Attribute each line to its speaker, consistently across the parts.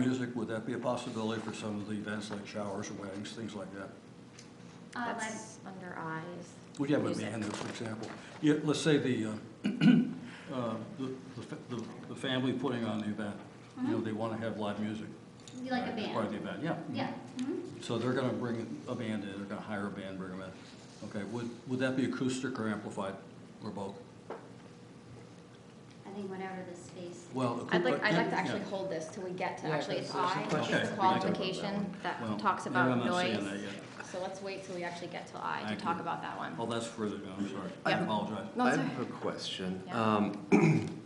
Speaker 1: Music, would that be a possibility for some of the events like showers or weddings, things like that?
Speaker 2: Uh,
Speaker 3: That's under eyes.
Speaker 1: Would you have a
Speaker 3: Music.
Speaker 1: band there, for example? Yeah, let's say the, uh, uh, the, the fa- the, the family putting on the event, you
Speaker 3: Mm-hmm.
Speaker 1: know, they want to have live music.
Speaker 2: Be like a
Speaker 1: uh, as Part of
Speaker 2: band.
Speaker 1: the event, yeah. Mm-hmm.
Speaker 2: Yeah. mhm.
Speaker 1: So they're going to bring a band in, they're going to hire a band, bring them in. Okay, would, would that be acoustic or amplified, or both?
Speaker 2: I think whatever the space.
Speaker 1: Well.
Speaker 3: I'd like,
Speaker 1: acou-
Speaker 3: I'd like to
Speaker 1: yeah.
Speaker 3: actually hold this till we get to,
Speaker 4: Yeah,
Speaker 3: actually, it's
Speaker 4: because there's
Speaker 3: I,
Speaker 4: some
Speaker 3: which
Speaker 1: questions
Speaker 3: is
Speaker 1: we can
Speaker 3: the
Speaker 1: talk about that
Speaker 3: qualification
Speaker 1: Well,
Speaker 3: that talks
Speaker 1: maybe I'm
Speaker 3: about
Speaker 1: not seeing
Speaker 3: noise.
Speaker 1: that yet.
Speaker 3: So let's wait till we actually get to I
Speaker 1: Thank
Speaker 3: to
Speaker 1: you.
Speaker 3: talk about that one.
Speaker 1: Oh, that's further down, I'm sorry. I
Speaker 3: Yeah.
Speaker 1: apologize.
Speaker 3: No,
Speaker 5: I
Speaker 3: it's
Speaker 5: have a
Speaker 3: all
Speaker 5: question.
Speaker 3: Yeah.
Speaker 5: Um,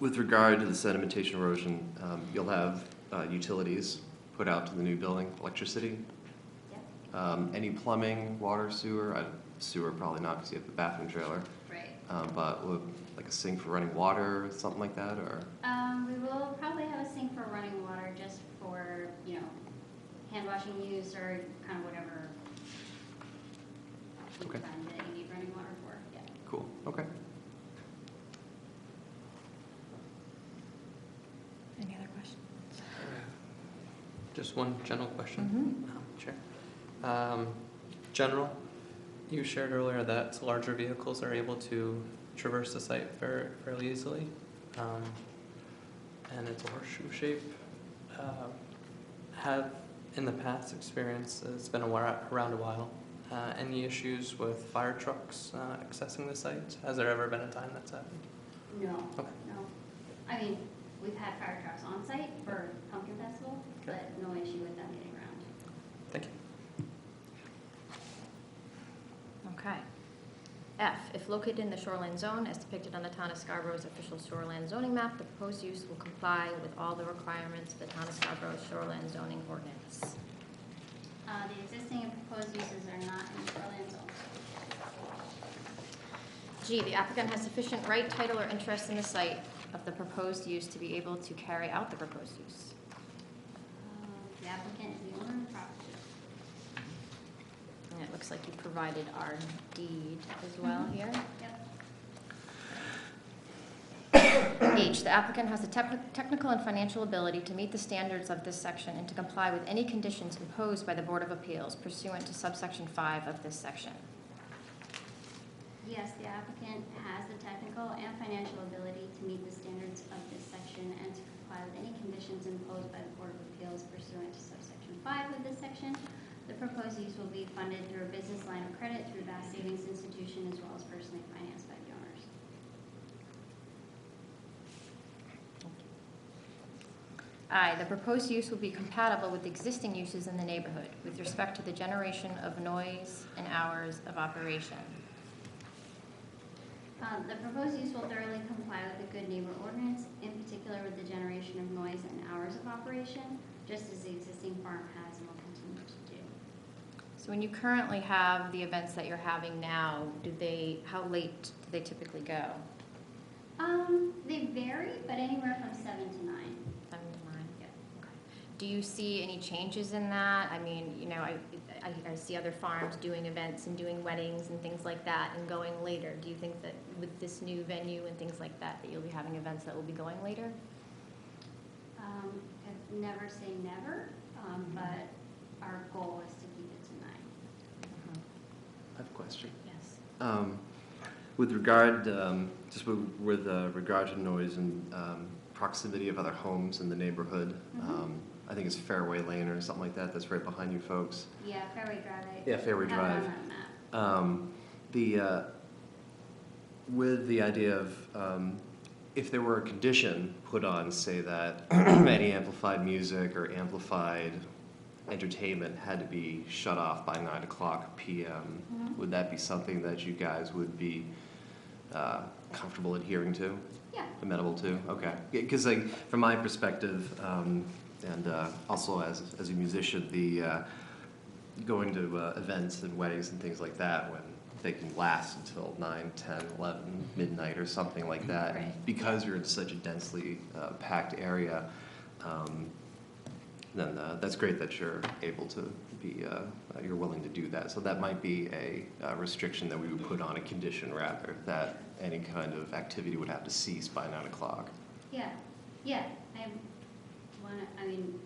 Speaker 5: With regard to the sedimentation erosion, um, you'll have uh, utilities put out to the new building, electricity,
Speaker 2: Yep,
Speaker 5: um, any plumbing, water, sewer, I- sewer probably not because you have the bathroom trailer,
Speaker 2: right.
Speaker 5: um, but would- like a sink for running water, something like that, or?
Speaker 2: Um, we will probably have a sink for running water just for, you know, hand washing use or kind of whatever. you
Speaker 5: Okay.
Speaker 2: find that you need running water for, yeah.
Speaker 5: Cool, okay.
Speaker 3: Any other questions?
Speaker 6: Just one general
Speaker 3: Mm-hmm.
Speaker 6: question. Um, Sure. Um, General, you shared earlier that larger vehicles are able to traverse the site fair- fairly easily. um, And it's a horseshoe shape. Um, Have, in the past experience, it's been a while, around a while, uh, any issues with fire trucks uh, accessing the site? Has there ever been a time that's happened?
Speaker 2: No,
Speaker 6: Okay.
Speaker 2: no. I mean, we've had fire trucks on site for pumpkin festival, but no issue with them getting around.
Speaker 6: Thank you.
Speaker 3: Okay. F, if located in the shoreline zone as depicted on the town of Scarborough's official shoreline zoning map, the proposed use will comply with all the requirements of the town of Scarborough's shoreline zoning ordinance.
Speaker 2: Uh, the existing and proposed uses are not in the shoreline zone.
Speaker 3: G, the applicant has sufficient right, title, or interest in the site of the proposed use to be able to carry out the proposed use.
Speaker 2: Um, The applicant is the owner of the property.
Speaker 3: And it looks like you provided our deed as well here.
Speaker 2: Yep.
Speaker 3: H, the applicant has the tep- technical and financial ability to meet the standards of this section and to comply with any conditions imposed by the Board of Appeals pursuant to subsection five of this section.
Speaker 2: Yes, the applicant has the technical and financial ability to meet the standards of this section and to comply with any conditions imposed by the Board of Appeals pursuant to subsection five of this section. The proposed use will be funded through a business line of credit through Bass Savings Institution as well as personally financed by donors.
Speaker 3: I, the proposed use will be compatible with existing uses in the neighborhood with respect to the generation of noise and hours of operation.
Speaker 2: Um, The proposed use will thoroughly comply with the Good Neighbor ordinance, in particular with the generation of noise and hours of operation, just as the existing farm has and will continue to do.
Speaker 3: So when you currently have the events that you're having now, do they, how late do they typically go?
Speaker 2: Um, They vary, but anywhere from seven to nine.
Speaker 3: Seven to nine?
Speaker 2: Yeah.
Speaker 3: Okay. Do you see any changes in that? I mean, you know, I, I, I see other farms doing events and doing weddings and things like that and going later. Do you think that with this new venue and things like that, that you'll be having events that will be going later?
Speaker 2: Um, I've never say never, um, but our goal is to keep it to nine.
Speaker 5: I have a question.
Speaker 3: Mm-hmm. Yes.
Speaker 5: Um, With regard, um, just with- with uh, regard to noise and um, proximity of other homes in the neighborhood,
Speaker 2: Mhm.
Speaker 5: um, I think it's Fairway Lane or something like that, that's right behind you folks.
Speaker 2: Yeah, Fairway Drive. I
Speaker 5: Yeah, Fairway
Speaker 2: Have
Speaker 5: Drive.
Speaker 2: it on that map.
Speaker 5: Um, The, uh, with the idea of, um, if there were a condition put on, say that any amplified music or amplified entertainment had to be shut off by nine o'clock PM,
Speaker 2: Mhm.
Speaker 5: would that be something that you guys would be uh, comfortable adhering to?
Speaker 2: Yeah,
Speaker 5: Amenable to? Okay. Because like, from my perspective, um, and uh, also as, as a musician, the, uh, going to uh, events and weddings and things like that when they can last until 9, 10, 11, midnight or something like that.
Speaker 2: Right.
Speaker 5: Because you're in such a densely uh, packed area, um, then uh, that's great that you're able to be, uh, you're willing to do that. So that might be a uh, restriction that we would put on a condition rather, that any kind of activity would have to cease by 9 o'clock.
Speaker 2: yeah, yeah. I, well, on, I mean,